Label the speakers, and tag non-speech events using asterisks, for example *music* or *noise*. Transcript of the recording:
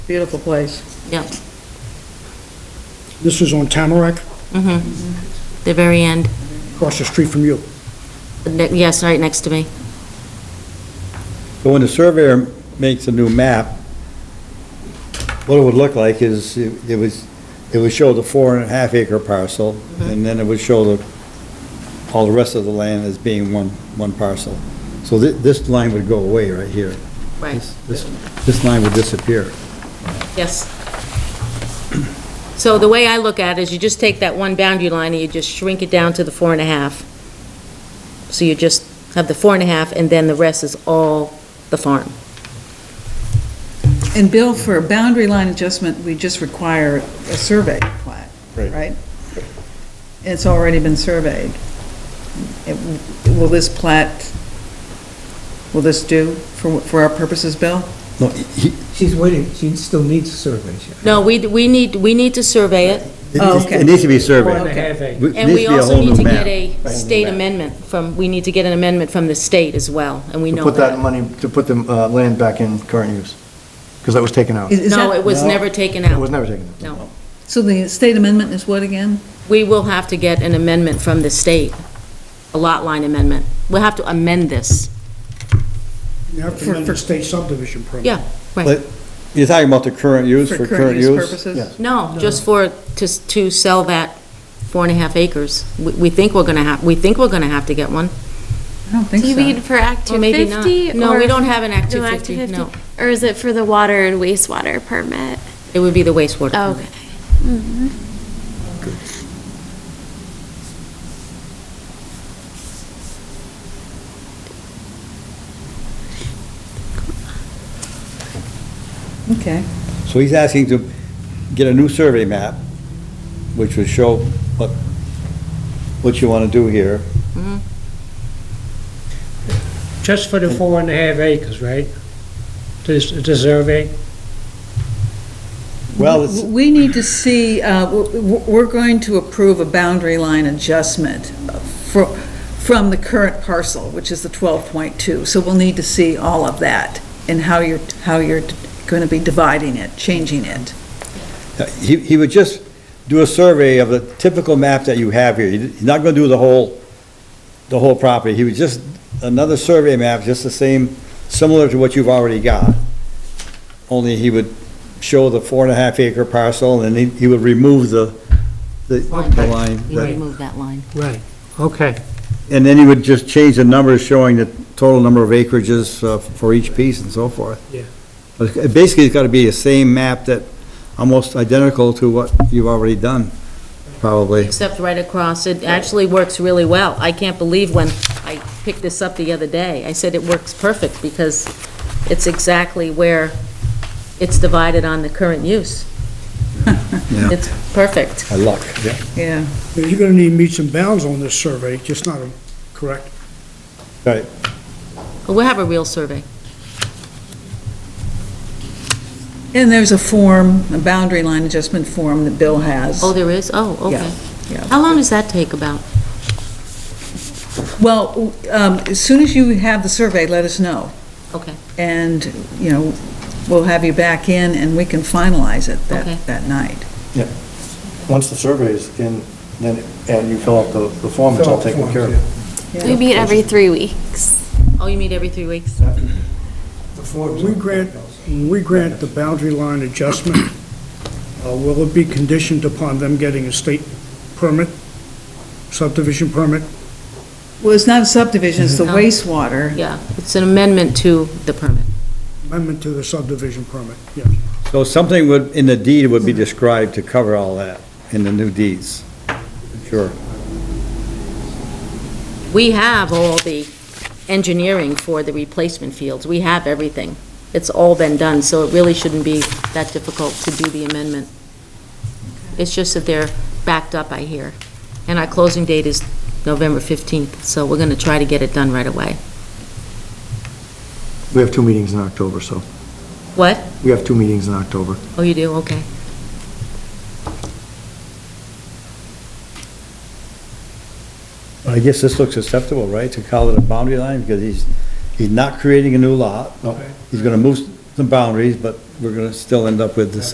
Speaker 1: beautiful place.
Speaker 2: Yep,
Speaker 3: This is on Tamarack,
Speaker 2: mm-hmm. The very end,
Speaker 3: across the street from you.
Speaker 2: Ne- yes, right next to me.
Speaker 4: But when the surveyor makes a new map, what it would look like is, it it was, it would show the four and a half acre parcel, and then it would show the, all the rest of the land as being one, one parcel. So thi- this line would go away right here. This- This, this line would disappear.
Speaker 2: Yes. So the way I look at it is you just take that one boundary line and you just shrink it down to the four and a half. So you just have the four and a half, and then the rest is all the farm.
Speaker 1: And Bill, for a boundary line adjustment, we just require a survey plat,
Speaker 4: Right.
Speaker 1: right? It's already been surveyed. It- Will this plat, will this do for, for our purposes, Bill?
Speaker 4: No, he- he-
Speaker 5: She's waiting, she still needs a survey. She-
Speaker 2: No, we, we need, we need to survey it,
Speaker 4: it
Speaker 1: Oh,
Speaker 4: needs-
Speaker 1: okay.
Speaker 4: it needs to be
Speaker 5: Four and
Speaker 4: surveyed.
Speaker 5: a half acres.
Speaker 4: It
Speaker 2: and
Speaker 4: needs
Speaker 2: we
Speaker 4: to be a
Speaker 2: also
Speaker 4: whole
Speaker 2: need
Speaker 4: new
Speaker 2: to get
Speaker 4: map.
Speaker 2: a state amendment from, we need to get an amendment from the state as well, and we
Speaker 6: To
Speaker 2: know
Speaker 6: put that
Speaker 2: that.
Speaker 6: money, to put the uh, land back in current use, because that was taken out.
Speaker 1: Is- is
Speaker 2: No,
Speaker 1: that-
Speaker 2: it was never taken
Speaker 6: It was
Speaker 2: out,
Speaker 6: never taken out.
Speaker 2: no.
Speaker 1: So the state amendment is what again?
Speaker 2: We will have to get an amendment from the state, a lot line amendment. We'll have to amend this.
Speaker 3: You have to
Speaker 1: For-
Speaker 3: amend the state subdivision permit.
Speaker 2: Yeah,
Speaker 4: Like,
Speaker 2: right.
Speaker 4: You're talking about the current use for current use?
Speaker 1: purposes?
Speaker 6: Yes.
Speaker 2: No, just for, to, to sell that four and a half acres. We, we think we're gonna have, we think we're gonna have to get one.
Speaker 1: I don't think
Speaker 7: Do you mean
Speaker 1: so.
Speaker 7: for Act
Speaker 2: Or maybe not.
Speaker 7: 250?
Speaker 2: No,
Speaker 7: or-
Speaker 2: we don't have an Act
Speaker 7: No
Speaker 2: 250, no.
Speaker 7: Or is it for the water and wastewater permit?
Speaker 2: It would be the wastewater.
Speaker 7: Oh,
Speaker 2: plant.
Speaker 7: Okay.
Speaker 2: Mm-hmm.
Speaker 1: Okay.
Speaker 4: So he's asking to get a new survey map, which would show what, what you want to do here.
Speaker 5: Just for the four and a half acres, right? This, the survey?
Speaker 4: Well, it's,
Speaker 1: We need to see, uh, w- w- we're going to approve a boundary line adjustment fro- from the current parcel, which is the 12.2, so we'll need to see all of that and how you're, how you're going to be dividing it, changing it. *laughs*
Speaker 4: he, he would just do a survey of the typical map that you have here. He's not going to do the whole, the whole property. He would just, another survey map, just the same, similar to what you've already got. Only he would show the four and a half acre parcel, and he, he would remove the, the the line.
Speaker 2: We
Speaker 4: that-
Speaker 2: remove that line.
Speaker 5: Right, okay.
Speaker 4: And then you would just change the numbers showing the total number of acreages uh, for each piece and so forth.
Speaker 5: Yeah.
Speaker 4: But it Basically, it's got to be the same map that, almost identical to what you've already done, probably.
Speaker 2: Except right across, it actually works really well. I can't believe when I picked this up the other day, I said it works perfect because it's exactly where it's divided on the current use.
Speaker 4: Yeah.
Speaker 2: It's perfect.
Speaker 4: By luck.
Speaker 1: Yeah.
Speaker 3: Now, You're gonna need meets and bounds on this survey, just not, a correct?
Speaker 4: Right.
Speaker 2: We'll have a real survey.
Speaker 1: And there's a form, a boundary line adjustment form that Bill has.
Speaker 2: Oh, there is? Oh,
Speaker 1: Yeah,
Speaker 2: okay.
Speaker 1: yeah.
Speaker 2: How long does that take about?
Speaker 1: Well, um, as soon as you have the survey, let us know,
Speaker 2: Okay,
Speaker 1: and, you know, we'll have you back in and we can finalize it
Speaker 2: Okay.
Speaker 1: that, that night.
Speaker 6: Once the survey is in, then, and you fill out the, the form, it's all taken care of.
Speaker 7: We meet every three weeks.
Speaker 2: oh, you meet every three weeks?
Speaker 3: When we grant, when we grant the boundary line adjustment, uh, will it be conditioned upon them getting a state permit, subdivision permit?
Speaker 1: Well, it's not a subdivision, it's the
Speaker 2: No.
Speaker 1: wastewater.
Speaker 2: Yeah, it's an amendment to the permit.
Speaker 3: Amendment to the subdivision permit, yes.
Speaker 4: So something would, in the deed would be described to cover all that in the new deeds. Sure.
Speaker 2: We have all the engineering for the replacement fields. We have everything. It's all been done, so it really shouldn't be that difficult to do the amendment. It's just that they're backed up, I hear. And our closing date is November 15th, so we're going to try to get it done right away.
Speaker 6: We have two meetings in October, so,
Speaker 2: What?
Speaker 6: we have two meetings in October.
Speaker 2: Oh, you do? Okay.
Speaker 4: I guess this looks acceptable, right, to call it a boundary line, because he's, he's not creating a new lot.
Speaker 6: No.
Speaker 4: He's going to move, some boundaries, but we're gonna still end up with the same